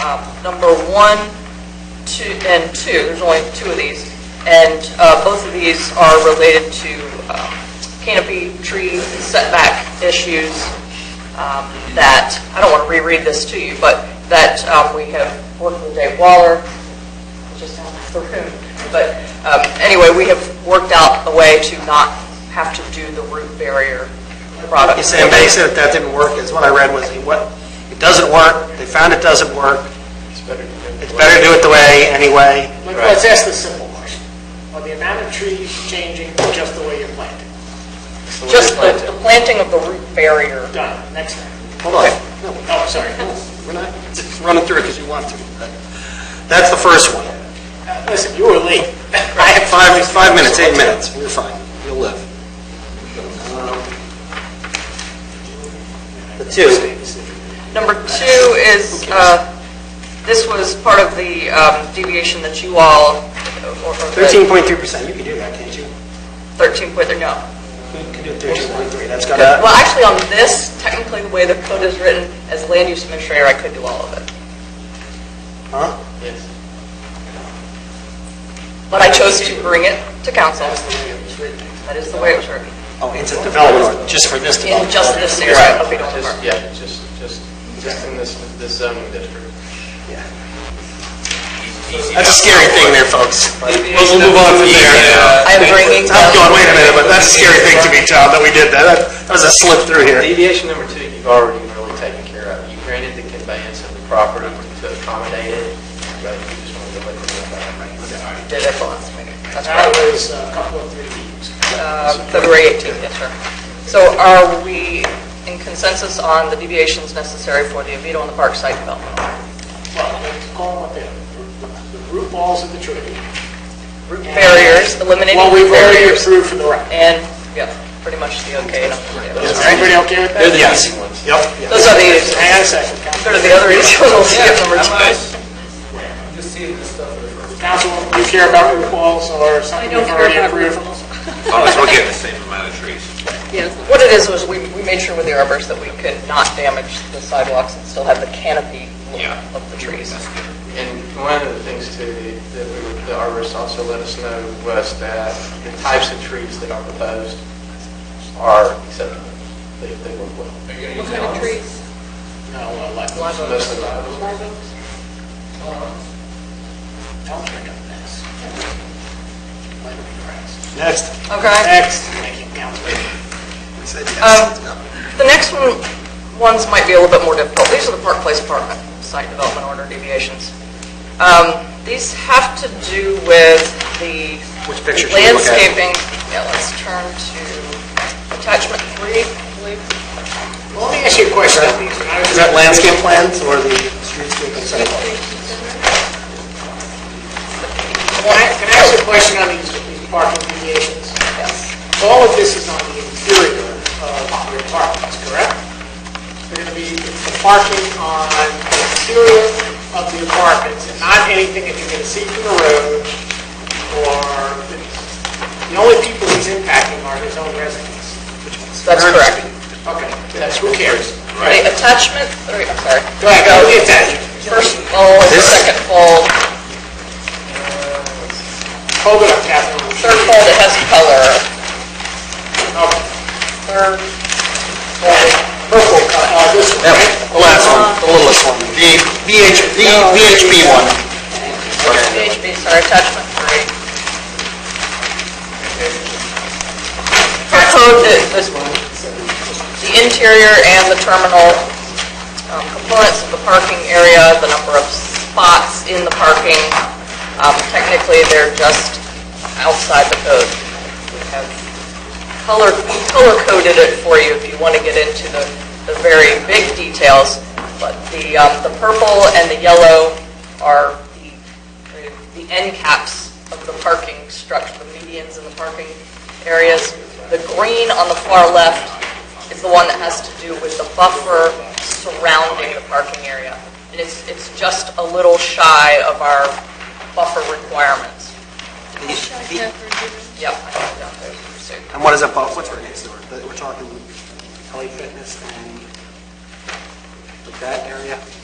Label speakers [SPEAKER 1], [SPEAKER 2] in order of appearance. [SPEAKER 1] uh, number one, two, and two, there's only two of these, and uh, both of these are related to um, canopy tree setback issues um, that, I don't want to reread this to you, but that um, we have worked with Dave Waller, just out of the room, but um, anyway, we have worked out a way to not have to do the root barrier product.
[SPEAKER 2] He's saying, but he said that that didn't work, is what I read was, he what, it doesn't work, they found it doesn't work,
[SPEAKER 3] It's better to do
[SPEAKER 2] it's better to do it the way, anyway.
[SPEAKER 4] Let- Let's ask the simple question. Are the amount of trees changing just the way you're planting?
[SPEAKER 1] Just the the planting of the root barrier.
[SPEAKER 4] Done, next one.
[SPEAKER 2] Hold on.
[SPEAKER 4] Oh, sorry.
[SPEAKER 2] We're not running through it because you want to. That's the first one.
[SPEAKER 4] Listen, you were late. I have
[SPEAKER 2] Five, five minutes, eight minutes, you're fine, you'll live. Um, The two,
[SPEAKER 1] Number two is, uh, this was part of the um, deviation that you all, or or the
[SPEAKER 2] 13.3%, you can do that, can't you?
[SPEAKER 1] 13 point, no.
[SPEAKER 2] You can do 13.3, that's got
[SPEAKER 1] Well,
[SPEAKER 2] to,
[SPEAKER 1] actually, on this, technically, the way the code is written, as land use administrator, I could do all of it.
[SPEAKER 2] huh?
[SPEAKER 1] But I chose to bring it to council.
[SPEAKER 4] written.
[SPEAKER 1] That is the way it was written,
[SPEAKER 2] Oh, it's a development, or just for this
[SPEAKER 1] in
[SPEAKER 2] development.
[SPEAKER 1] just this area
[SPEAKER 2] Right.
[SPEAKER 1] of Beetle
[SPEAKER 3] Just,
[SPEAKER 1] Park.
[SPEAKER 3] yeah, just, just, just in this, this zoning district.
[SPEAKER 2] That's a scary thing there, folks.
[SPEAKER 5] We'll move on from there.
[SPEAKER 1] I am bringing
[SPEAKER 2] I'm going, Oh, wait
[SPEAKER 1] down
[SPEAKER 2] a minute, but that's a scary thing to me, Tom, that we did that. That- That was a slip through here.
[SPEAKER 3] Deviation number two, you've already really taken care of. You granted the conveyance of the property to accommodate it, but you just wanted to let them know about it.
[SPEAKER 1] did it the last meeting. That's
[SPEAKER 4] That
[SPEAKER 1] right.
[SPEAKER 4] was uh, a couple of three meetings.
[SPEAKER 1] Uh, February 18th, yes, sir. So are we in consensus on the deviations necessary for the Oviedo and the Park site development?
[SPEAKER 4] Well, let's call them the, the root balls of the tree.
[SPEAKER 1] Root barriers, eliminating
[SPEAKER 4] Well, we've already
[SPEAKER 1] barriers,
[SPEAKER 4] approved for the rock.
[SPEAKER 1] and, yeah, pretty much the okay. and
[SPEAKER 4] Is
[SPEAKER 1] I'm-
[SPEAKER 4] everybody okay with that?
[SPEAKER 2] Yes. Yep.
[SPEAKER 1] Those are the,
[SPEAKER 4] Hang on a second. Council-
[SPEAKER 1] sort of the other issues, we'll skip number two.
[SPEAKER 4] Council, do you care about root balls or something we've already approved?
[SPEAKER 5] Oh, so we're getting the same amount of trees.
[SPEAKER 1] What it is, was we, we made sure with the arbors that we could not damage the sidewalks and still have the canopy look
[SPEAKER 5] Yeah.
[SPEAKER 1] of the trees.
[SPEAKER 3] And one of the things too, that we, were- the arborist also let us know was that the types of trees that are proposed are acceptable. They, they work well.
[SPEAKER 6] What kind of trees?
[SPEAKER 4] No, uh, like,
[SPEAKER 1] Live oak.
[SPEAKER 3] Most of them.
[SPEAKER 4] don't bring up this. Let it be grass.
[SPEAKER 2] Next.
[SPEAKER 1] Okay.
[SPEAKER 4] Next, thank you, Council.
[SPEAKER 2] We said yes.
[SPEAKER 1] Um, The next one, ones might be a little bit more difficult. These are the Park Place Apartment Site Development Order deviations. Um, These have to do with the
[SPEAKER 2] Which picture should we look at?
[SPEAKER 1] landscaping. Yeah, let's turn to attachment three, I believe.
[SPEAKER 4] Well, Let me ask you a question.
[SPEAKER 2] Is that landscape plans or the streetscape and sidewalk?
[SPEAKER 4] Can I can I ask you a question on these these parking deviations?
[SPEAKER 1] Yes.
[SPEAKER 4] All of this is on the interior of your apartments, correct? They're going to be the parking on the interior of the apartments and not anything that you can see from the road or, the only people he's impacting are his own residents.
[SPEAKER 1] That's correct.
[SPEAKER 4] Okay, that's who cares.
[SPEAKER 1] The attachment three, I'm sorry.
[SPEAKER 4] Go ahead, go get that.
[SPEAKER 1] First fold,
[SPEAKER 2] This-
[SPEAKER 1] second fold,
[SPEAKER 4] Hold it up, Catherine.
[SPEAKER 1] third fold, it has color.
[SPEAKER 4] Okay.
[SPEAKER 1] Third
[SPEAKER 4] Purple, uh, this one,
[SPEAKER 2] Yep,
[SPEAKER 4] right?
[SPEAKER 2] The last one, the littlest one, the VH, the VHB one.
[SPEAKER 1] VHB, sorry, attachment three. Our code, the, the- the interior and the terminal um, components of the parking area, the number of spots in the parking, um, technically, they're just outside the code. We have color, color-coded it for you if you want to get into the, the very big details, but the, um, the purple and the yellow are the- the end caps of the parking structure, the medians in the parking areas. The green on the far left is the one that has to do with the buffer surrounding the parking area. And it's, it's just a little shy of our buffer requirements. Yep. I have it down there. So-
[SPEAKER 2] And what is that, about? what's right next door? That We're talking LA Fitness and like that area?